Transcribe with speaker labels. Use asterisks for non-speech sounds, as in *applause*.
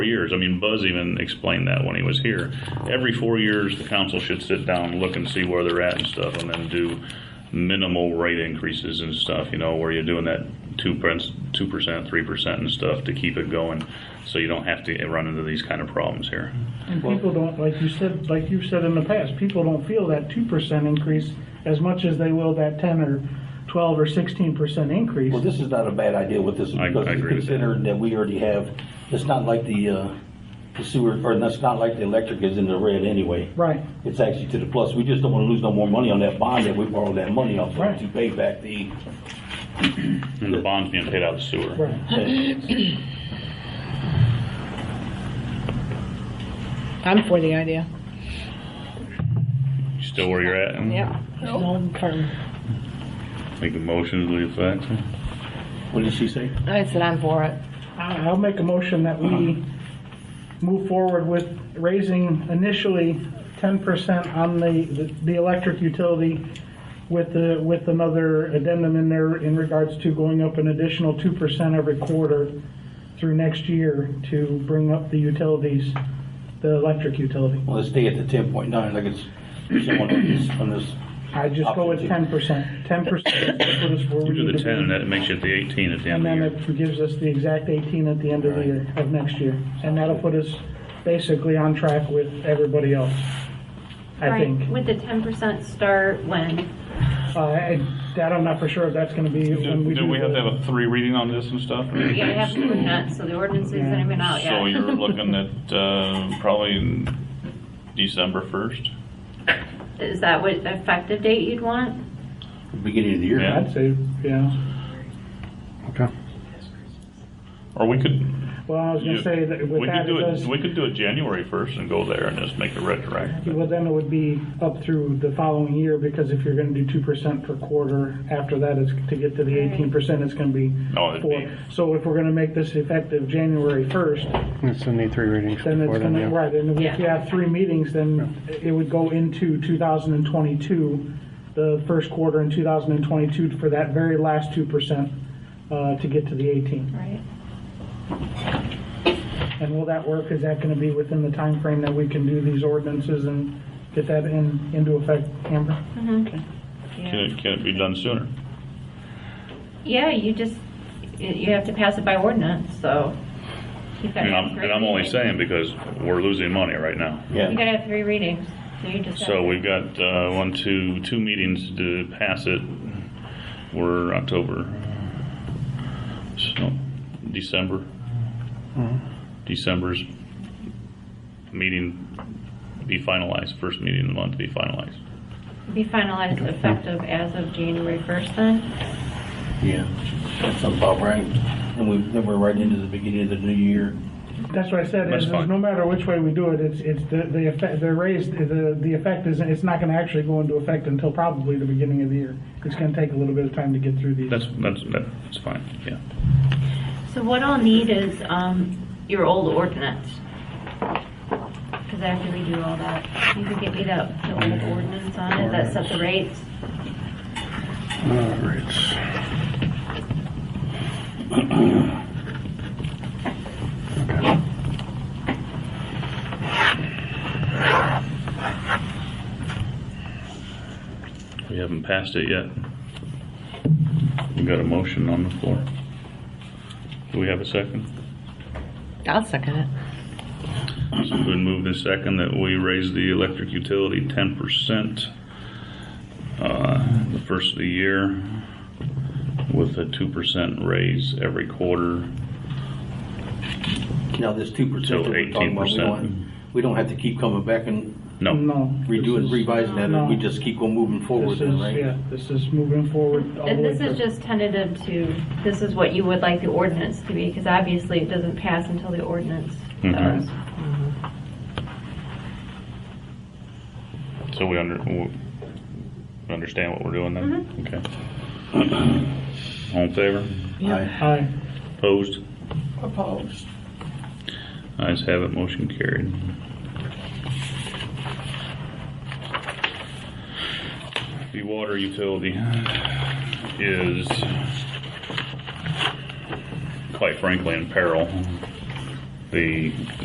Speaker 1: four years. I mean, Buzz even explained that when he was here. Every four years, the council should sit down, look and see where they're at and stuff, and then do minimal rate increases and stuff, you know, where you're doing that two percent, two percent, three percent and stuff to keep it going, so you don't have to run into these kind of problems here.
Speaker 2: And people don't, like you said, like you've said in the past, people don't feel that two percent increase as much as they will that ten or twelve or sixteen percent increase.
Speaker 3: Well, this is not a bad idea with this,
Speaker 1: I- I
Speaker 3: because
Speaker 1: agree with that.
Speaker 3: considering that we already have, it's not like the uh, the sewer, or that's not like the electric is in the red anyway.
Speaker 2: Right.
Speaker 3: It's actually to the plus. We just don't want to lose no more money on that bond that we borrowed that money off
Speaker 2: Right.
Speaker 3: of to pay back the,
Speaker 1: And the bond's being paid out of sewer.
Speaker 2: Right.
Speaker 4: I'm for the idea.
Speaker 1: You Still where you're at?
Speaker 4: Long term.
Speaker 1: Make a motion to the effect?
Speaker 3: what did she say?
Speaker 4: I said I'm for it.
Speaker 2: I- I'll make a motion that we move forward with raising initially ten percent on the, the- the electric utility with the, with another addendum in there in regards to going up an additional two percent every quarter through next year to bring up the utilities, the electric utility.
Speaker 3: Well, let's stay at the 10.9, like it's someone on this, on this.
Speaker 2: I just go with ten percent. Ten percent put us where we
Speaker 1: You do
Speaker 2: need
Speaker 1: the
Speaker 2: to
Speaker 1: ten, and
Speaker 2: be.
Speaker 1: that makes you at the eighteen at the
Speaker 2: And
Speaker 1: end of the
Speaker 2: then
Speaker 1: year.
Speaker 2: it gives us the exact eighteen at the end of the year, of next year. And that'll put us basically on track with everybody else, I
Speaker 5: Right,
Speaker 2: think.
Speaker 5: Would the ten percent start when?
Speaker 2: Uh, I, that I'm not for sure if that's gonna be when we
Speaker 6: Do
Speaker 2: do.
Speaker 6: do we have to
Speaker 2: the-
Speaker 6: have a three reading on this and stuff?
Speaker 5: Yeah, we have to look at, so the ordinance isn't even out yet.
Speaker 6: So you're
Speaker 2: *laughs*
Speaker 6: looking at uh, probably in December 1st?
Speaker 5: Is that what effective date you'd want?
Speaker 3: Beginning of the year.
Speaker 6: Yeah.
Speaker 2: I'd say, yeah.
Speaker 6: Or we could.
Speaker 2: Well, I was gonna say that with
Speaker 6: we
Speaker 2: that,
Speaker 6: could do
Speaker 2: it does,
Speaker 6: We could do it January 1st and go there and just make it retroactive.
Speaker 2: well, then it would be up through the following year because if you're gonna do two percent per quarter, after that is to get to the eighteen percent, it's gonna be
Speaker 6: No, Oh, it'd be-
Speaker 2: four. So if we're gonna make this effective January first,
Speaker 7: It's only three readings
Speaker 2: Then it's
Speaker 7: before then,
Speaker 2: gonna,
Speaker 7: yeah.
Speaker 2: right, and if you
Speaker 5: Yeah.
Speaker 2: have three meetings, then it would go into 2022, the first quarter in 2022 for that very last 2% uh, to get to the 18.
Speaker 5: Right.
Speaker 2: And will that work? Is that gonna be within the time frame that we can do these ordinances and get that in, into effect, Amber?
Speaker 6: Can it, can it be done sooner?
Speaker 5: Yeah, you just, you- you have to pass it by ordinance, so. you've got to
Speaker 1: And
Speaker 5: have
Speaker 1: I'm,
Speaker 5: three
Speaker 1: and I'm only
Speaker 5: readings.
Speaker 1: saying because we're losing money right now.
Speaker 5: You
Speaker 3: Yeah.
Speaker 5: gotta have three readings, so you just.
Speaker 1: So
Speaker 5: have-
Speaker 1: we've got, uh, one, two, two meetings to pass it. We're October, so, December. December's meeting be finalized, first meeting of the month be finalized.
Speaker 5: Be finalized effective as of January first then?
Speaker 3: Yeah. That's about right. And we, then we're right into the beginning of the new year.
Speaker 2: That's what I said,
Speaker 1: That's
Speaker 2: is
Speaker 1: fine.
Speaker 2: no matter which way we do it, it's, it's the, the effect, the raise, the, the effect is, it's not gonna actually go into effect until probably the beginning of the year. It's gonna take a little bit of time to get through these.
Speaker 1: That's, that's, that's fine, yeah.
Speaker 5: So what I'll need is, um, your old ordinance. Cause I have to redo all that. You can get me that, the old ordinance on it that set the rates.
Speaker 7: All right.
Speaker 1: We haven't passed it yet. We've got a motion on the floor. Do we have a second?
Speaker 4: I'll second it.
Speaker 1: It's been moved and second that we raise the electric utility ten percent uh, the first of the year with a two percent raise every quarter.
Speaker 3: Now, this 2% that
Speaker 1: So
Speaker 3: we're talking about, we
Speaker 1: 18%.
Speaker 3: don't, we don't have to keep coming back and
Speaker 1: No,
Speaker 2: No.
Speaker 3: redoing,
Speaker 2: this is-
Speaker 3: revising that, and we
Speaker 2: No.
Speaker 3: just keep on moving
Speaker 2: This
Speaker 3: forward
Speaker 2: is,
Speaker 3: then, right?
Speaker 2: yeah, this is moving forward all the
Speaker 5: And
Speaker 2: way
Speaker 5: this is
Speaker 2: through.
Speaker 5: just tentative to, this is what you would like the ordinance to be, because obviously it doesn't pass until the ordinance
Speaker 1: Mhm.
Speaker 5: does.
Speaker 1: so we under, we understand what we're doing then? Okay. All in favor?
Speaker 3: Aye.
Speaker 2: Aye.
Speaker 1: Opposed? Opposed. Ayes have it, motion carried. The water utility is, quite frankly, in peril. the